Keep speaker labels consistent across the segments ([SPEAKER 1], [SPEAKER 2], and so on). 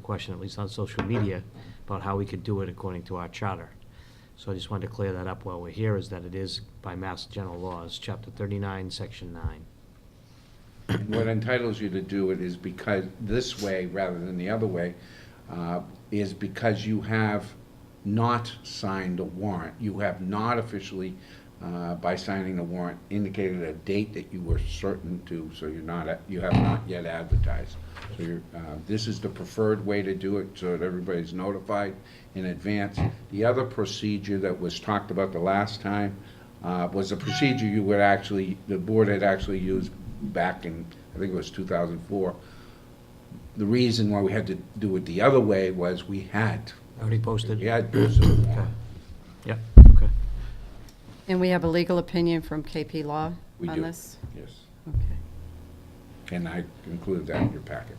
[SPEAKER 1] question, at least on social media, about how we could do it according to our charter. So I just wanted to clear that up while we're here, is that it is by Mass General Laws, Chapter 39, Section 9.
[SPEAKER 2] What entitles you to do it is because, this way rather than the other way, uh, is because you have not signed a warrant. You have not officially, uh, by signing the warrant, indicated a date that you were certain to, so you're not, at- you have not yet advertised. So you're, uh, this is the preferred way to do it, so that everybody's notified in advance. The other procedure that was talked about the last time uh, was a procedure you would actually, the board had actually used back in, I think it was 2004. The reason why we had to do it the other way was we had,
[SPEAKER 1] Already posted?
[SPEAKER 2] we had posted a
[SPEAKER 1] Okay.
[SPEAKER 2] warrant.
[SPEAKER 1] Yep, okay.
[SPEAKER 3] And we have a legal opinion from KP Law
[SPEAKER 2] We
[SPEAKER 3] on
[SPEAKER 2] do.
[SPEAKER 3] this?
[SPEAKER 2] Yes,
[SPEAKER 3] Okay.
[SPEAKER 2] and I included that in your packet.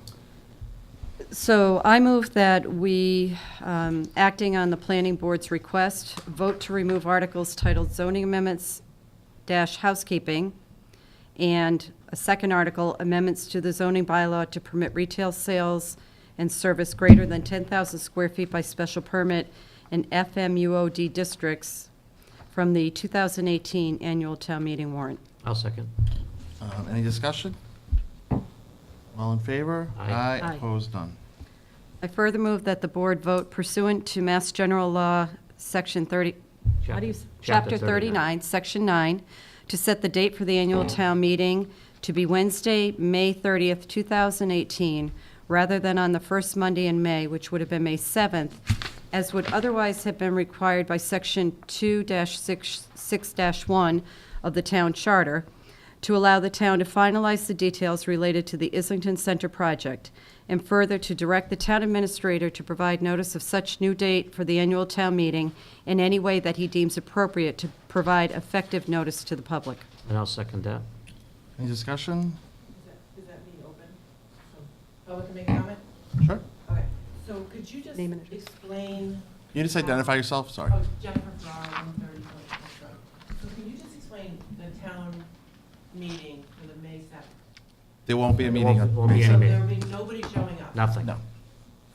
[SPEAKER 3] So I move that we, um, acting on the planning board's request, vote to remove articles titled zoning amendments dash housekeeping, and a second article, amendments to the zoning bylaw to permit retail sales and service greater than 10,000 square feet by special permit in FMUOD districts from the 2018 annual town meeting warrant.
[SPEAKER 1] I'll second.
[SPEAKER 4] Um, Any discussion? All in favor?
[SPEAKER 1] Aye.
[SPEAKER 3] Aye.
[SPEAKER 4] Opposed, none.
[SPEAKER 3] I further move that the board vote pursuant to Mass General Law, Section 30, how do you, s- Chapter 39, Section 9, to set the date for the annual town meeting to be Wednesday, May 30th, 2018, rather than on the first Monday in May, which would have been May 7th, as would otherwise have been required by Section 2-6-1 of the town charter, to allow the town to finalize the details related to the Islington Center project, and further to direct the town administrator to provide notice of such new date for the annual town meeting in any way that he deems appropriate to provide effective notice to the public.
[SPEAKER 1] And I'll second that.
[SPEAKER 4] Any discussion?
[SPEAKER 5] Is that me open? So, Public can make a comment?
[SPEAKER 4] Sure.
[SPEAKER 5] Okay, so could you just
[SPEAKER 3] Name and address.
[SPEAKER 5] explain,
[SPEAKER 4] You
[SPEAKER 5] Um,
[SPEAKER 4] just identify yourself, sorry.
[SPEAKER 5] oh, Jennifer Ferraro, one thirty North Road. So can you just explain the town meeting for the May seventh?
[SPEAKER 4] There won't be a
[SPEAKER 1] There
[SPEAKER 4] meeting.
[SPEAKER 1] won't-
[SPEAKER 4] on
[SPEAKER 1] won't be
[SPEAKER 4] May
[SPEAKER 1] any
[SPEAKER 5] So
[SPEAKER 4] 7th.
[SPEAKER 5] there'll be nobody showing up?
[SPEAKER 1] Nothing.
[SPEAKER 4] No.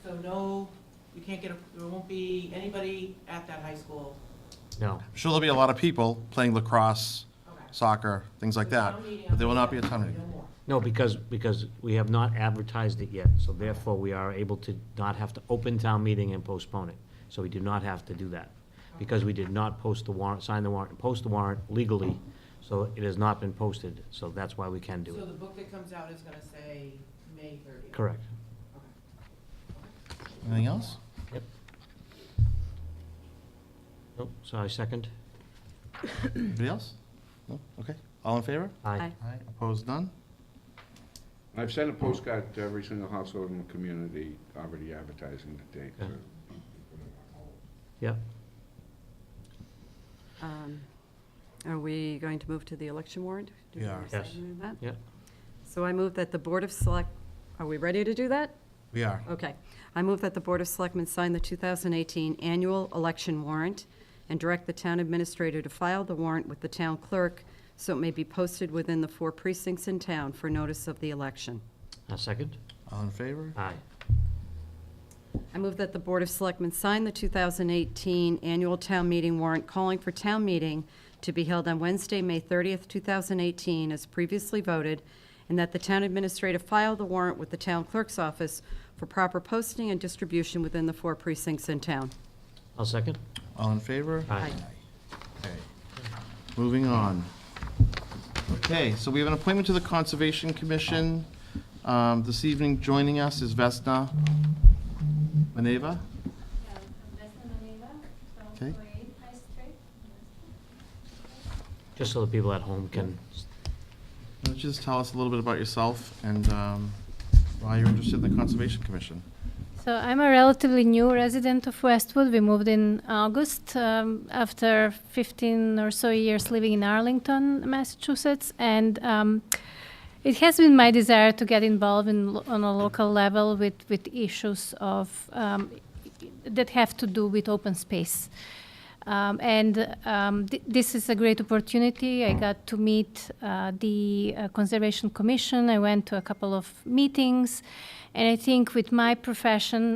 [SPEAKER 5] So no, you can't get, a. there won't be anybody at that high school?
[SPEAKER 1] No.
[SPEAKER 4] Sure, there'll be a lot of people playing lacrosse,
[SPEAKER 5] Okay.
[SPEAKER 4] soccer, things like
[SPEAKER 5] So
[SPEAKER 4] that,
[SPEAKER 5] town meeting
[SPEAKER 4] but there will
[SPEAKER 5] on
[SPEAKER 4] not be
[SPEAKER 5] May
[SPEAKER 4] a ton
[SPEAKER 5] 7th,
[SPEAKER 4] of
[SPEAKER 5] No more.
[SPEAKER 1] No, because, because we have not advertised it yet, so therefore we are able to not have to open town meeting and postpone it. So we do not have to do that, because we did not post the warrant, sign the warrant, and post the warrant legally, so it has not been posted, so that's why we can do
[SPEAKER 5] So
[SPEAKER 1] it.
[SPEAKER 5] the book that comes out is gonna say May thirtieth?
[SPEAKER 1] Correct.
[SPEAKER 4] Anything else?
[SPEAKER 1] Yep. Nope, so I second.
[SPEAKER 4] Anybody else? No? Okay. All in favor?
[SPEAKER 1] Aye.
[SPEAKER 3] Aye.
[SPEAKER 4] Aye. Opposed, none?
[SPEAKER 2] I've sent a postcard to every single household in the community already advertising the date. so
[SPEAKER 1] Okay.
[SPEAKER 2] you can put it on hold.
[SPEAKER 1] Yep.
[SPEAKER 3] Um, Are we going to move to the election warrant? Do we
[SPEAKER 4] Yeah.
[SPEAKER 3] have a
[SPEAKER 1] Yes.
[SPEAKER 3] second on that?
[SPEAKER 1] Yep.
[SPEAKER 3] So I move that the Board of Select, are we ready to do that?
[SPEAKER 4] We are.
[SPEAKER 3] Okay. I move that the Board of Selectmen sign the 2018 annual election warrant and direct the town administrator to file the warrant with the town clerk so it may be posted within the four precincts in town for notice of the election.
[SPEAKER 1] I second.
[SPEAKER 4] All in favor?
[SPEAKER 1] Aye.
[SPEAKER 3] I move that the Board of Selectmen sign the 2018 annual town meeting warrant calling for town meeting to be held on Wednesday, May 30th, 2018, as previously voted, and that the town administrator file the warrant with the town clerk's office for proper posting and distribution within the four precincts in town.
[SPEAKER 1] I'll second.
[SPEAKER 4] All in favor?
[SPEAKER 1] Aye.
[SPEAKER 4] Okay. Moving on. Okay, so we have an appointment to the Conservation Commission. Um, This evening, joining us is Vesna Maneva.
[SPEAKER 6] Yeah, Vesna Maneva,
[SPEAKER 4] Okay.
[SPEAKER 6] 1248 High Street.
[SPEAKER 1] Just so the people at home can,
[SPEAKER 4] Why don't you just tell us a little bit about yourself and um, why you're interested in the Conservation Commission?
[SPEAKER 6] So I'm a relatively new resident of Westwood. We moved in August um, after 15 or so years living in Arlington, Massachusetts, and um, it has been my desire to get involved in, lo- on a local level with, with issues of um, that have to do with open space. Um, and um, th- this is a great opportunity. I got to meet uh, the uh, Conservation Commission. I went to a couple of meetings. And I think with my profession